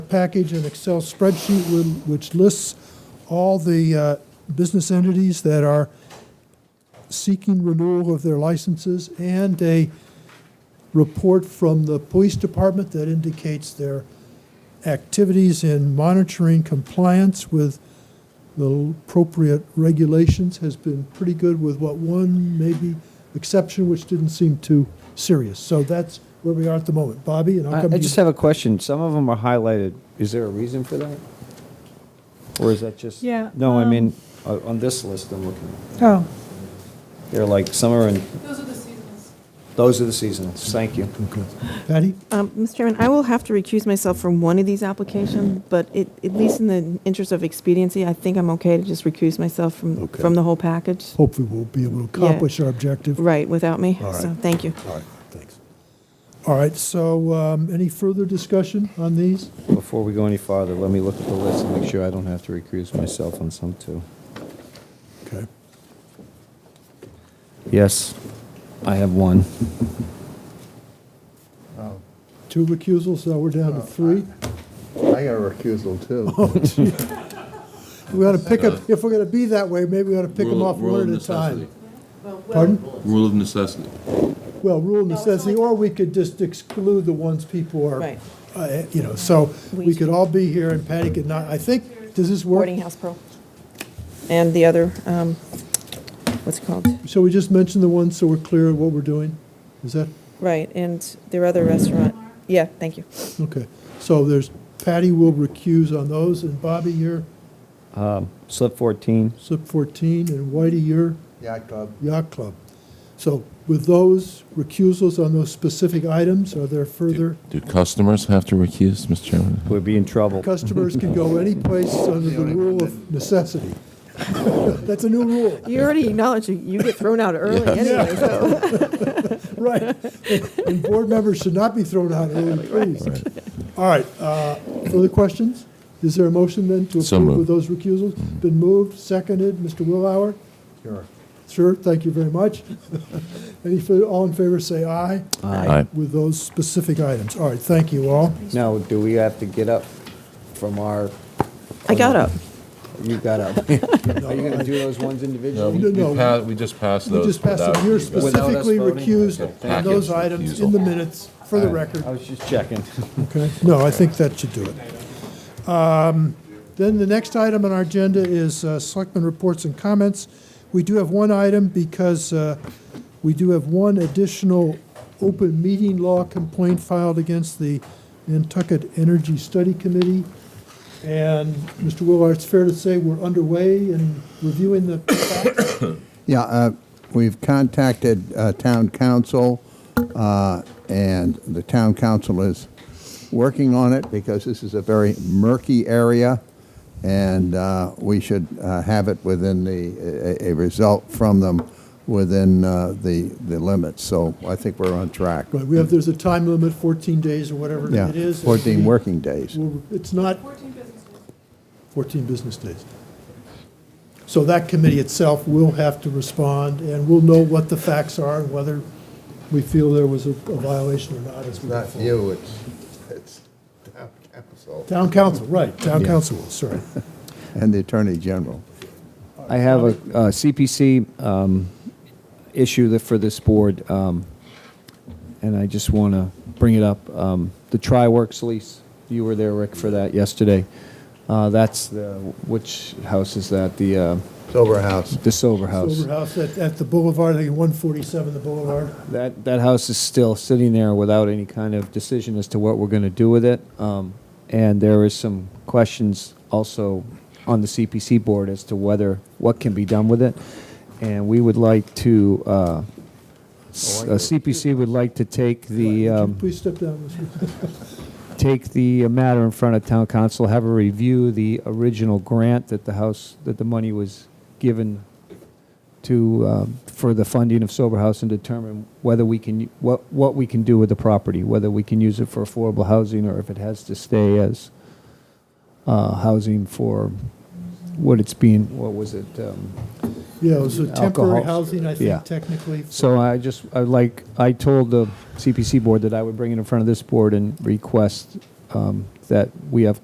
package an Excel spreadsheet whi- which lists all the uh, business entities that are seeking renewal of their licenses and a report from the police department that indicates their activities in monitoring compliance with the appropriate regulations has been pretty good with what one maybe exception, which didn't seem too serious. So that's where we are at the moment. Bobby, and I'll I come Uh, I to just you. have a question. Some of them are highlighted. Is there a reason for that? Or is that just? Yeah, No, I um, mean, uh, on this list I'm looking at. Oh, They're like, some are in, Those are the seasons. those are the seasonals. Thank you. Patty? Um, Mr. Chairman, I will have to recuse myself from one of these applications, but it, at least in the interest of expediency, I think I'm okay to just recuse myself from, Okay. from the whole package. Hopefully, we'll be able to Yeah. accomplish our objective. Right, without me. All right. So, thank you. All right, thanks. All right, so um, any further discussion on these? Before we go any farther, let me look at the list and make sure I don't have to recuse myself on some too. Okay. Yes, I have one. Two recusals, so we're down to three. Oh, I got a recusal too. We ought to pick up, if we're going to be that way, maybe we ought to pick them Rule- off rule of one at a time. necessity. Pardon? Rule of necessity. Well, rule of necessity, or we could just exclude the ones people are, Right. uh, you know, so we could all be here and Patty could not. I think, does this work? Boarding House Pro. And the other, um, what's it called? Shall we just mention the ones so we're clear of what we're doing? Is that, Right, and their other restaurant. Yeah, thank you. okay. So there's, Patty will recuse on those, and Bobby, you're Slip 14. slip 14, and Whitey, you're Yacht Club, yacht club. So with those recusals on those specific items, are there further? Do customers have to recuse, Mr. Chairman? We'd be in trouble. Customers can go any place under the rule of necessity. That's a new rule. You already acknowledged you, you get thrown out early anyway, so. Right. And board members should not be thrown out early, please. All right, uh, further questions? Is there a motion then to So approve with moved. those recusals? Been moved, seconded, Mr. Willauer? sure. Sure, thank you very much. Any, fur- all in favor, say aye. Aye. With those specific items. All right, thank you all. Now, do we have to get up from our, I got up. you got up? Are you going to do those ones individually? we- No, no. pa- we just passed We just passed it. You're Without us specifically voting? recused Okay, on thank you. those items in the Recusal. minutes for the record. I was just checking. Okay, no, I think that should do it. Um, Then the next item on our agenda is uh, Selectmen Reports and Comments. We do have one item because uh, we do have one additional open meeting law complaint filed against the Nantucket Energy Study Committee. And, Mr. Willard, it's fair to say we're underway in reviewing the facts? Yeah, uh, we've contacted uh, town council, uh, and the town council is working on it because this is a very murky area, and uh, we should uh, have it within the, a- a a result from them within uh, the the limits. So I think we're on track. Right, we have, there's a time limit, 14 days or whatever Yeah, it is. 14 working days. Well, It's not 14 business days. 14 business days. So that committee itself will have to respond, and we'll know what the facts are and whether we feel there was a a violation or not as we go Not forward. you, it's, it's town council. Town council, right, town council will, sorry. And the Attorney General. I have a uh, CPC um, issue that for this board, um, and I just want to bring it up. Um, The TriWorks lease, you were there, Rick, for that yesterday. Uh, That's the, which house is that? The, uh, Silver House. the Silver House. Silver House at, at the Boulevard, I think 147 the Boulevard. That, that house is still sitting there without any kind of decision as to what we're going to do with it. Um, And there is some questions also on the CPC board as to whether, what can be done with it. And we would like to, uh, s- uh, CPC would like to take the, Could you um, Please step down, Mr. take the matter in front of town council, have a review, the original grant that the house, that the money was given to, um, for the funding of sober house and determine whether we can, what, what we can do with the property, whether we can use it for affordable housing or if it has to stay as uh, housing for what it's being, what was it? um, Yeah, it was a temporary Alcohol. housing, I Yeah. think technically. for- So I just, I like, I told the CPC board that I would bring it in front of this board and request um, that we have